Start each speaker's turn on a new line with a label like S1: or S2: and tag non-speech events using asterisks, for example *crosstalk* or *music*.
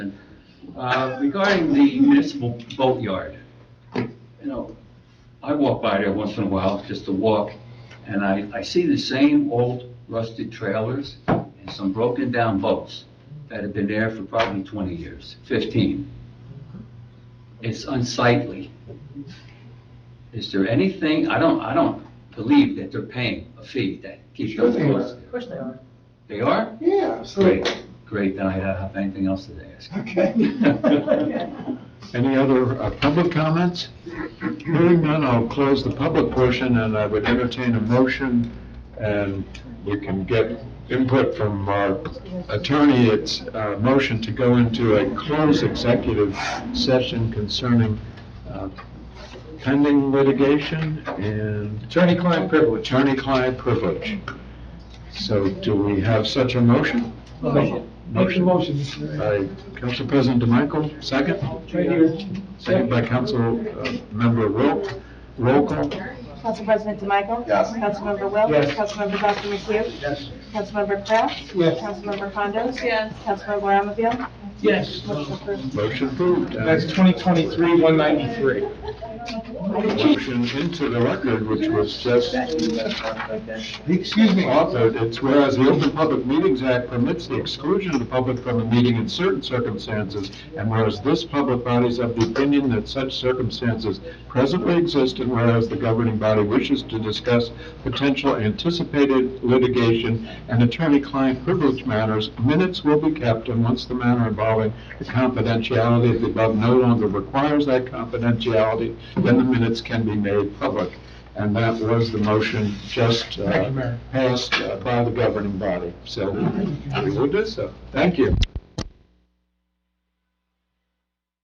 S1: Uh, Regarding the municipal boatyard, you know, I walk by there once in a while, just to walk, and I, I see the same old rusted trailers and some broken-down boats that have been there for probably 20 years, 15. It's unsightly. Is there anything, I don't, I don't believe that they're paying a fee that keeps
S2: Sure
S1: those
S2: they are.
S1: boats.
S3: Of course they are.
S1: They are?
S2: Yeah,
S1: Great,
S2: absolutely.
S1: great, then I don't have anything else to ask. *laughs*
S2: Okay. *laughs*
S4: Any other uh, public comments? Hearing none, I'll close the public portion, and I would entertain a motion, and we can get input from our attorney. It's a motion to go into a closed executive session concerning uh, pending litigation and... Attorney-client privilege. Attorney-client privilege. So do we have such a motion?
S2: Motion. Make the motion, Mr. Mayor.
S4: By Council President DeMichael, second?
S2: Right here.
S4: Second by Council uh, Member Roll, roll call.
S5: Council President DeMichael?
S2: Yes.
S5: Councilmember Wells?
S2: Yes.
S5: Councilmember Dr. McHugh?
S2: Yes.
S5: Councilmember Kraft?
S2: Yes.
S5: Councilmember Condos?
S3: Yes.
S5: Councilmember Ramaville?
S2: Yes.
S5: Motion approved.
S4: Motion approved.
S2: That's 2023-193.
S4: Motion into the record, which was just
S2: Excuse me.
S4: authored. It's whereas the Open Public Meetings Act permits the exclusion of the public from a meeting in certain circumstances, and whereas this public body is of the opinion that such circumstances presently exist, and whereas the governing body wishes to discuss potential anticipated litigation and attorney-client privilege matters, minutes will be kept, and once the matter involving the confidentiality of the above no longer requires that confidentiality, then the minutes can be made public. And that was the motion just uh,
S2: Thank you, Mayor.
S4: passed uh, by the governing body. So we will do so. Thank you.